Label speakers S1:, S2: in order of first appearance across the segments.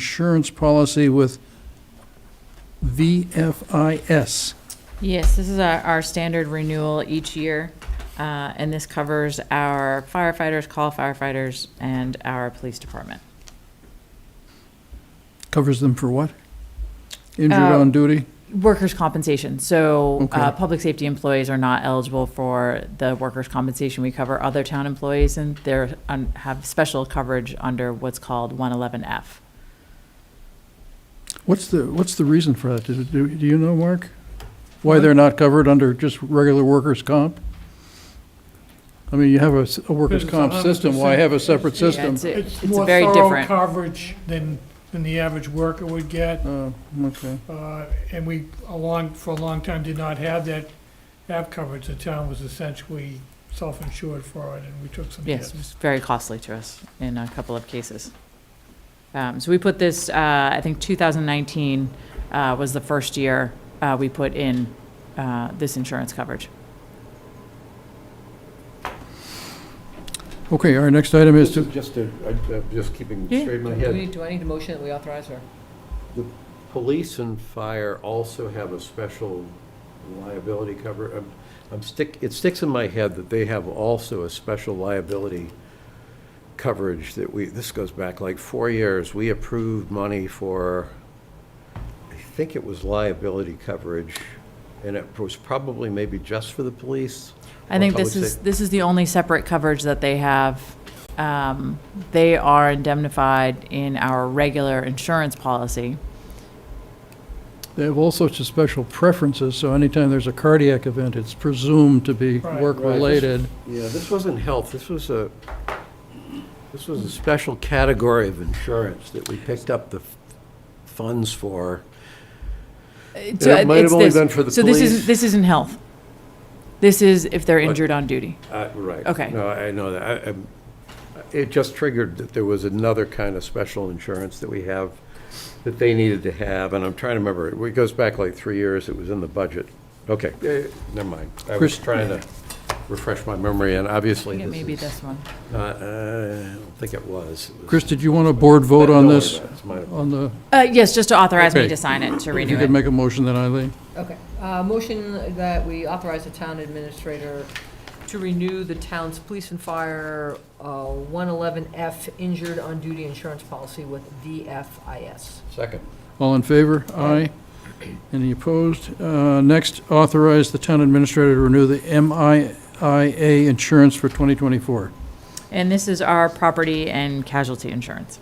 S1: insurance policy with VFIS.
S2: Yes, this is our, our standard renewal each year, uh, and this covers our firefighters, call firefighters, and our police department.
S1: Covers them for what? Injured
S2: Uh,
S1: on duty?
S2: Workers' compensation, so, uh,
S1: Okay.
S2: public safety employees are not eligible for the workers' compensation. We cover other town employees, and they're, un- have special coverage under what's called one eleven F.
S1: What's the, what's the reason for that? Do, do do you know, Mark? Why they're not covered under just regular workers' comp? I mean, you have a, s- a workers'
S3: Because it's
S1: comp system, why
S3: 100%
S1: have a separate
S3: it's-
S1: system?
S2: It's
S3: It's
S2: it's
S3: more
S2: very
S3: thorough
S2: different.
S3: coverage than, than the average worker would get,
S1: Oh, okay.
S3: uh, and we, along, for a long time, did not have that, have coverage. The town was essentially self-insured for it, and we took some
S2: Yes,
S3: hits.
S2: it was very costly to us in a couple of cases. Um, So we put this, uh, I think 2019 uh, was the first year uh, we put in uh, this insurance coverage.
S1: Okay, our next item is
S4: This
S1: to,
S4: is just a, I- I'm just keeping
S2: Yeah.
S4: straight in my
S5: Do
S4: head.
S5: we, do I need a motion that we authorize her?
S4: Police and fire also have a special liability cover. I'm- I'm stick, it sticks in my head that they have also a special liability coverage that we, this goes back like four years. We approved money for, I think it was liability coverage, and it was probably maybe just for the police.
S2: I think
S4: or
S2: this
S4: public
S2: is, this is the only separate coverage that they have. Um, They are indemnified in our regular insurance policy.
S1: they have all sorts of special preferences, so anytime there's a cardiac event, it's presumed to be
S3: Right.
S1: work-related.
S4: Yeah, this wasn't health, this was a, this was a special category of insurance that we picked up the f- funds for.
S2: It
S4: it might have only been for the
S2: So uh, this is,
S4: police.
S2: this isn't health. This is if they're injured on duty.
S4: Uh, Right.
S2: Okay.
S4: No, I know that. I- I'm- It just triggered that there was another kind of special insurance that we have, that they needed to have, and I'm trying to remember. It goes back like three years, it was in the budget. Okay, eh, never mind. I was
S1: Chris-
S4: trying to refresh my memory, and
S2: I
S4: obviously
S2: think it may be
S4: this is
S2: this one.
S4: not- uh, I don't think it was. It was-
S1: Chris, did you want a board vote
S4: Don't
S1: on
S4: worry
S1: this,
S4: about it. It's my-
S1: on the?
S2: Uh, yes, just to authorize me
S1: Okay.
S2: to sign it, to
S1: If you
S2: renew
S1: could
S2: it.
S1: make a motion then, Eileen.
S5: Okay, uh, motion that we authorize the town administrator to renew the town's police and fire, uh, 111F injured on duty insurance policy with VFIS.
S4: Second.
S1: All in favor? Aye. Any opposed? Uh, Next, authorize the town administrator to renew the MIA insurance for 2024.
S2: And this is our property and casualty insurance.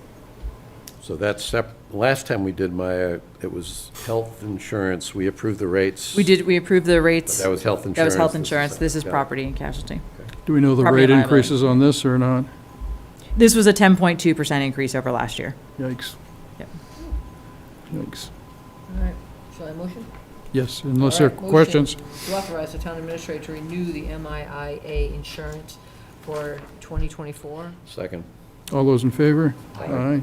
S4: So that's sep, last time we did my, uh, it was health insurance, we approved the rates.
S2: We did, we approved the
S4: But
S2: rates.
S4: That was health insurance.
S2: That was health
S4: This is
S2: insurance. This is
S4: yeah.
S2: property and casualty.
S1: Do we know the
S2: Property
S1: rate
S2: liability.
S1: increases on this or not?
S2: This was a 10.2% increase over last year.
S1: Yikes.
S2: Yep.
S1: Yikes.
S5: All right, shall I motion?
S1: Yes, unless there are
S5: All right, motion
S1: questions.
S5: To authorize the town administrator to renew the MIA insurance for 2024.
S4: Second.
S1: All those in favor? Aye.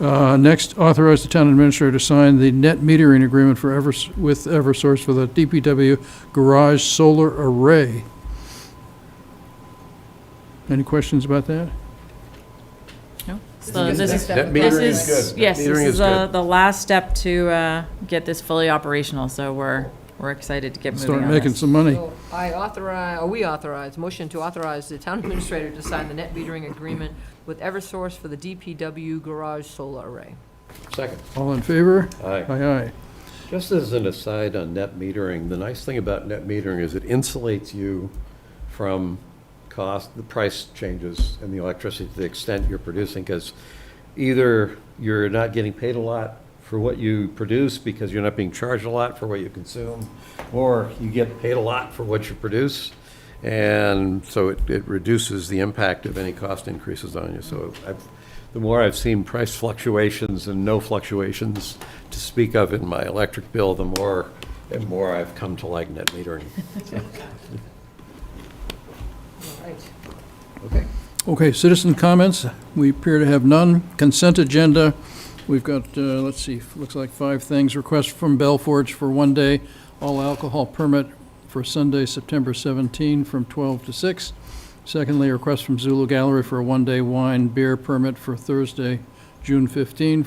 S1: Uh, Next, authorize the town administrator to sign the net metering agreement for Evers, with Eversource for the DPW garage solar array. Any questions about that?
S2: No?
S5: So
S2: Oh, So this
S5: is the
S2: is,
S5: next step.
S4: That
S2: this
S4: metering is
S2: is,
S4: good.
S2: yes,
S4: That
S2: this
S4: metering
S2: is uh, the,
S4: good.
S2: the last step to uh, get this fully operational. So we're, we're excited to get moving
S1: Start
S2: on
S1: making
S2: this.
S1: some money.
S5: So I authorize, or we authorize, motion to authorize the town administrator to sign the net metering agreement with Eversource for the DPW garage solar array.
S4: Second.
S1: All in favor?
S4: Aye.
S1: Aye, aye.
S4: Just as an aside on net metering, the nice thing about net metering is it insulates you from cost, the price changes in the electricity to the extent you're producing, because either you're not getting paid a lot for what you produce because you're not being charged a lot for what you consume, or you get paid a lot for what you produce. And so it, it reduces the impact of any cost increases on you. So I've, the more I've seen price fluctuations and no fluctuations to speak of in my electric bill, the more and more I've come to like net metering.
S5: All right.
S4: Okay.
S1: Okay, citizen comments, we appear to have none. Consent agenda, we've got, uh, let's see, looks like five things. Request from Bell Forge for one day all alcohol permit for Sunday, September 17, from 12 to 6. Secondly, request from Zulu Gallery for a one-day wine beer permit for Thursday, June 15